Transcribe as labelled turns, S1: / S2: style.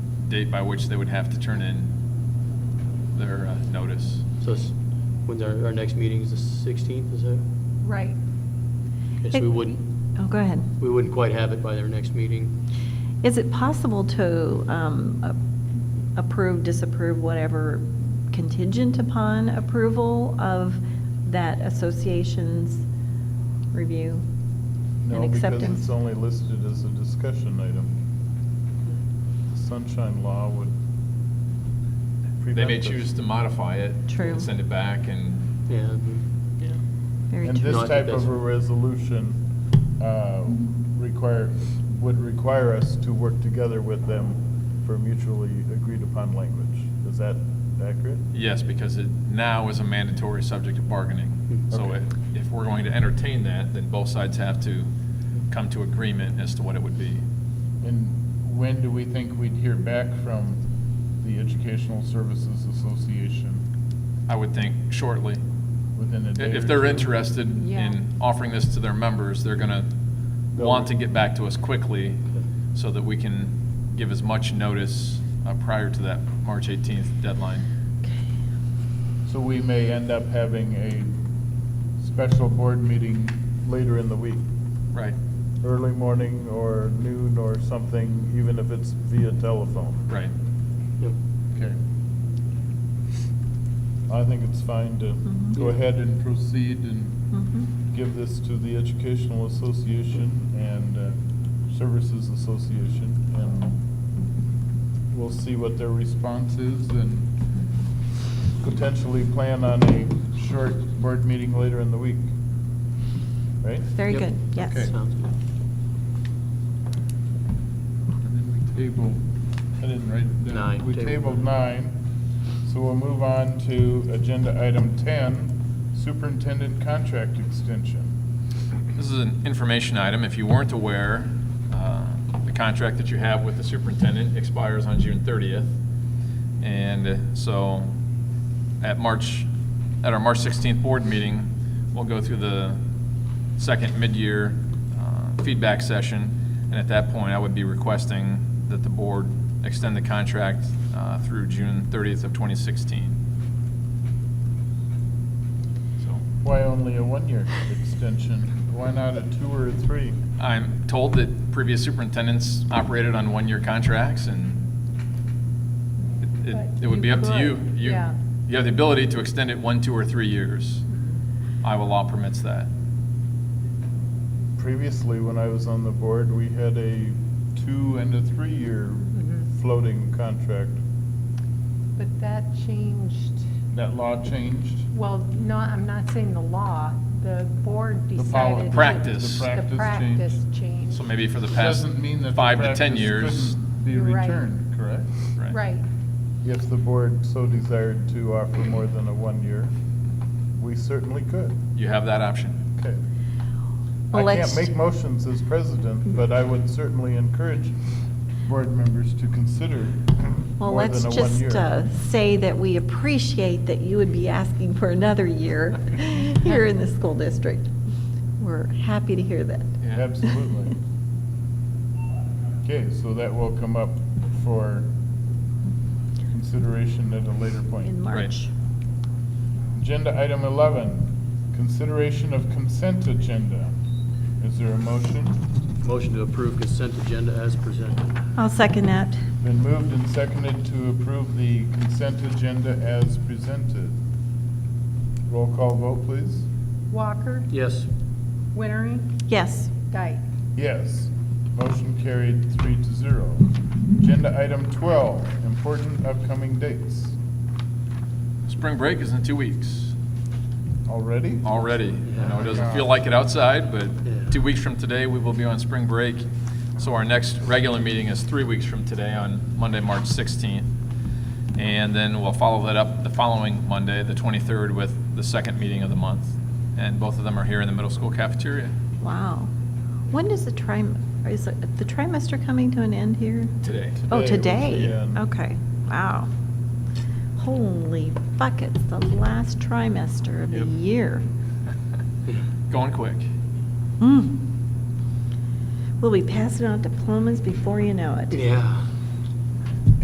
S1: date by which they would have to turn in their uh, notice.
S2: So it's, when's our, our next meeting is the 16th, is that?
S3: Right.
S2: Okay, so we
S3: It-
S2: wouldn't,
S3: Oh, go ahead.
S2: we wouldn't quite have it by their next meeting.
S3: Is it possible to um, a- approve, disapprove, whatever contingent upon approval of that association's review and
S4: No, because
S3: acceptance?
S4: it's only listed as a discussion item. The Sunshine Law would prevent
S1: They may
S4: this.
S1: choose to modify it.
S3: True.
S1: And send it back and,
S2: Yeah. it'd be-
S3: Very
S4: And
S3: true.
S2: No, I
S4: this
S2: think
S4: type
S2: that's-
S4: of a resolution uh, require, would require us to work together with them for mutually agreed-upon language. Is that accurate?
S1: yes, because it now is a mandatory subject of bargaining. So
S4: Okay.
S1: if, if we're going to entertain that, then both sides have to come to agreement as to what it would be.
S4: And when do we think we'd hear back from the Educational Services Association?
S1: I would think shortly.
S4: Within a
S1: I-
S4: day
S1: If
S4: or
S1: they're
S4: two?
S1: interested in offering this to their members, they're gonna
S4: They'll-
S1: want to get back to us quickly so that we can give as much notice uh, prior to that March 18th deadline.
S4: So we may end up having a special board meeting later in the week,
S1: Right,
S4: early morning or noon or something, even if it's via telephone.
S1: right.
S2: Yep.
S4: Okay. I think it's fine to
S3: Mhm.
S4: go ahead and proceed and
S3: Mhm.
S4: give this to the Educational Association and uh, Services Association, and we'll see what their response is, and potentially plan on a short board meeting later in the week. Right?
S3: Very
S2: Yep.
S3: good, yes.
S4: Okay.
S2: Sounds good.
S4: And then we table, I didn't write it down.
S2: Nine.
S4: We tabled nine, so we'll move on to agenda item 10, Superintendent Contract Extension.
S1: This is an information item. If you weren't aware, uh, the contract that you have with the superintendent expires on June 30th. And so at March, at our March 16th board meeting, we'll go through the second mid-year uh, feedback session. And at that point, I would be requesting that the board extend the contract uh, through June 30th of 2016. So
S4: Why only a one-year extension? Why not a two or a three?
S1: I'm told that previous superintendents operated on one-year contracts, and it- it, it would be up to you.
S5: But you
S1: You,
S5: could, yeah.
S1: you have the ability to extend it one, two, or three years.
S5: Mm-hmm.
S1: Iowa law permits that.
S4: Previously, when I was on the board, we had a two and a three-year Mm-hmm.
S5: Mhm.
S4: floating contract.
S5: But that changed,
S4: That law changed?
S5: well, no, I'm not saying the law, the board
S4: The
S5: decided.
S4: policy.
S5: to-
S1: Practice.
S4: The
S5: The
S4: practice
S5: practice
S4: changed.
S5: changed.
S1: So maybe for the past
S4: Doesn't mean that the
S1: five to 10
S4: practice
S1: years.
S4: couldn't Be
S5: Right.
S4: returned, correct?
S5: Right,
S4: If the board so desired to offer more than a one-year, we certainly could.
S1: You have that option.
S4: Okay.
S3: Well,
S4: I
S3: let's-
S4: can't make motions as president, but I would certainly encourage board members to consider
S3: Well,
S4: more
S3: let's
S4: than a
S3: just uh,
S4: one-year.
S3: say that we appreciate that you would be asking for another year here in the school district. We're happy to hear that.
S1: Yeah.
S4: Absolutely. Okay, so that will come up for consideration at a later
S3: In
S4: point.
S3: March.
S4: Agenda item 11, consideration of consent agenda. Is there a motion?
S2: Motion to approve consent agenda as presented.
S3: I'll second that.
S4: Been moved and seconded to approve the consent agenda as presented. Roll call vote, please.
S5: Walker,
S2: Yes.
S5: Wintering,
S3: Yes.
S5: Dyke.
S4: Yes. Motion carried three to zero. Agenda item 12, important upcoming dates.
S1: Spring break is in two weeks
S4: Already?
S1: already. I know it doesn't
S4: Yeah.
S1: feel like it outside,
S2: Yeah.
S1: but two weeks from today, we will be on spring break. So our next regular meeting is three weeks from today on Monday, March 16th. And then we'll follow that up the following Monday, the 23rd, with the second meeting of the month. And both of them are here in the middle school cafeteria.
S3: Wow. When does the trim, is it- the trimester coming to an end here?
S1: Today.
S3: Oh,
S4: Today was
S3: today?
S4: the end.
S3: Okay, wow. Holy buckets, the last trimester of the
S1: Yep.
S3: year.
S1: Going quick.
S3: Hmm. Mm. We'll be passing out diplomas before you know it.
S2: Yeah.